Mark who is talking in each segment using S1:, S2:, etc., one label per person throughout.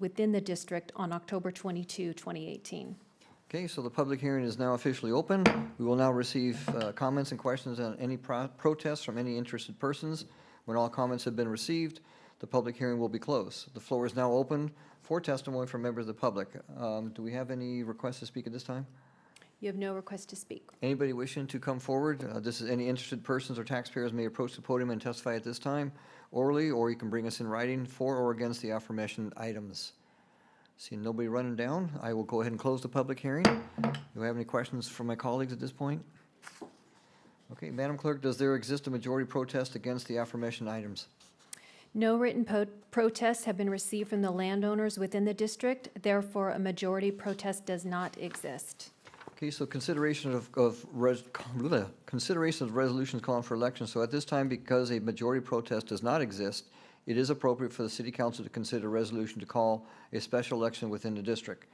S1: within the district on October 22, 2018.
S2: Okay, so the public hearing is now officially open. We will now receive uh, comments and questions on any pro- protests from any interested persons. When all comments have been received, the public hearing will be closed. The floor is now open for testimony from members of the public. Um, Do we have any requests to speak at this time?
S1: You have no request to speak.
S2: Anybody wishing to come forward, uh, this is, any interested persons or taxpayers may approach the podium and testify at this time orally, or you can bring us in writing for or against the aforementioned items. Seeing nobody running down, I will go ahead and close the public hearing. Do I have any questions from my colleagues at this point? Okay, Madam Clerk, does there exist a majority protest against the aforementioned items?
S1: No written po- protests have been received from the landowners within the district, therefore a majority protest does not exist.
S2: Okay, so consideration of, of, res- bleh, consideration of resolutions calling for elections. So at this time, because a majority protest does not exist, it is appropriate for the city council to consider a resolution to call a special election within the district.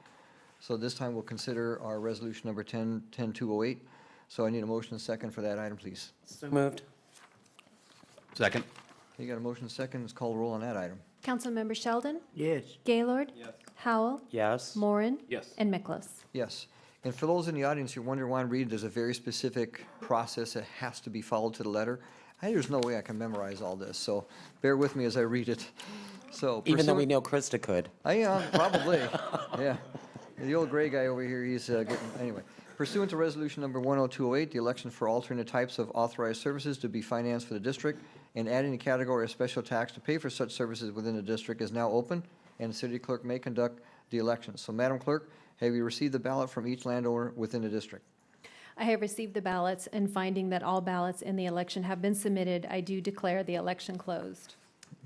S2: So this time, we'll consider our resolution number 10, 10208. So I need a motion and second for that item, please.
S3: So moved.
S4: Second.
S2: Okay, You got a motion and second, let's call the roll on that item.
S1: Councilmember Sheldon,
S3: Yes.
S1: Gaylord, Howell,
S3: Yes.
S1: Morin,
S4: Yes.
S1: and Miklos.
S2: Yes. And for those in the audience who wonder why I'm reading, there's a very specific process that has to be followed to the letter. I, there's no way I can memorize all this, so bear with me as I read it. So.
S3: Even though we
S2: pursuant-
S3: know Krista could.
S2: I am, Oh, probably, yeah. The old gray guy over here, he's uh, getting, anyway. Pursuant to Resolution Number 10208, the election for alternate types of authorized services to be financed for the district and adding a category of special tax to pay for such services within the district is now open, and the city clerk may conduct the election. So Madam Clerk, have you received the ballot from each landowner within the district?
S1: I have received the ballots, and finding that all ballots in the election have been submitted, I do declare the election closed.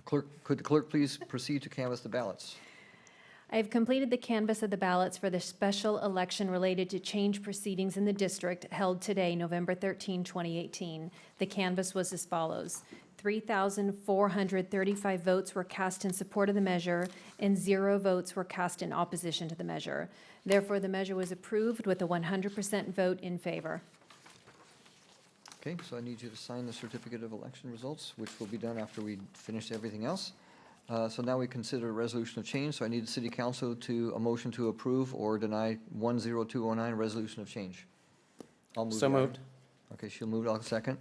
S2: Clerk, could the clerk please proceed to canvass the ballots?
S1: I have completed the canvass of the ballots for the special election related to change proceedings in the district held today, November 13, 2018. The canvass was as follows. 3,435 votes were cast in support of the measure, and zero votes were cast in opposition to the measure. Therefore, the measure was approved with a 100% vote in favor.
S2: Okay, so I need you to sign the certificate of election results, which will be done after we finish everything else. Uh, So now we consider a resolution of change, so I need the city council to, a motion to approve or deny 10209, resolution of change. I'll move
S3: So
S2: the item.
S3: moved.
S2: Okay, she'll move, I'll second.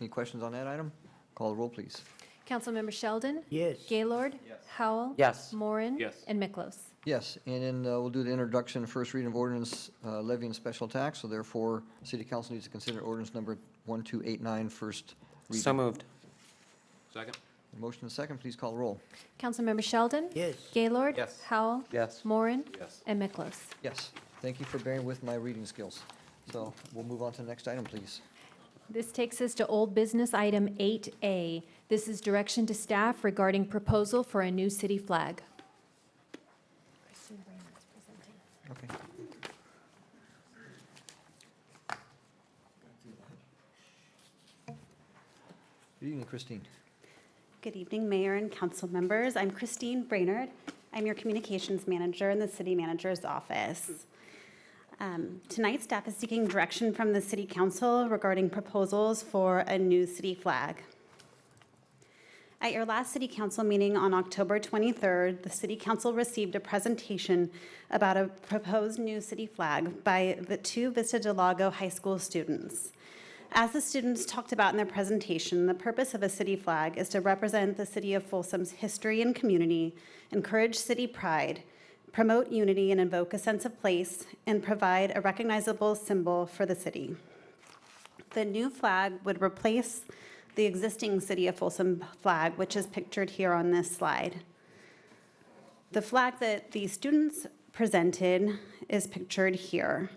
S2: Any questions on that item? Call the roll, please.
S1: Councilmember Sheldon?
S3: Yes.
S1: Gaylord? Howell?
S3: Yes.
S1: Morin?
S4: Yes.
S1: And Miklos.
S2: Yes, and then uh, we'll do the introduction, first reading of ordinance uh, levying special tax, so therefore, city council needs to consider ordinance number 1289, first reading.
S3: So moved.
S4: Second.
S2: Motion and second, please call the roll.
S1: Councilmember Sheldon?
S3: Yes.
S1: Gaylord?
S4: Yes.
S1: Howell?
S3: Yes.
S1: Morin?
S4: Yes.
S1: And Miklos.
S2: Yes, thank you for bearing with my reading skills. So we'll move on to the next item, please.
S1: This takes us to old business item 8A. This is direction to staff regarding proposal for a new city flag.
S2: Okay. Good evening, Christine.
S5: Good evening, Mayor and council members. I'm Christine Brainerd. I'm your communications manager in the city manager's office. Um, Tonight, staff is seeking direction from the city council regarding proposals for a new city flag. At your last city council meeting on October 23rd, the city council received a presentation about a proposed new city flag by the two Vista Del Lago High School students. As the students talked about in their presentation, the purpose of a city flag is to represent the city of Folsom's history and community, encourage city pride, promote unity and invoke a sense of place, and provide a recognizable symbol for the city. The new flag would replace the existing City of Folsom flag, which is pictured here on this slide. The flag that the students presented is pictured here.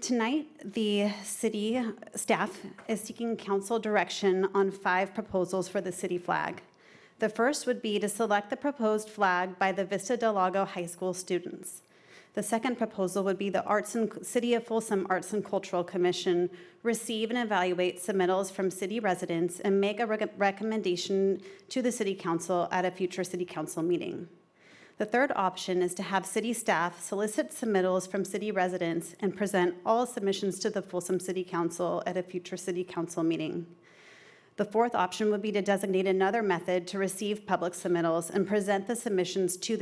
S5: Tonight, the city staff is seeking council direction on five proposals for the city flag. The first would be to select the proposed flag by the Vista Del Lago High School students. The second proposal would be the Arts and, City of Folsom Arts and Cultural Commission receive and evaluate submittals from city residents and make a rec- recommendation to the city council at a future city council meeting. The third option is to have city staff solicit submittals from city residents and present all submissions to the Folsom City Council at a future city council meeting. The fourth option would be to designate another method to receive public submittals and present the submissions to the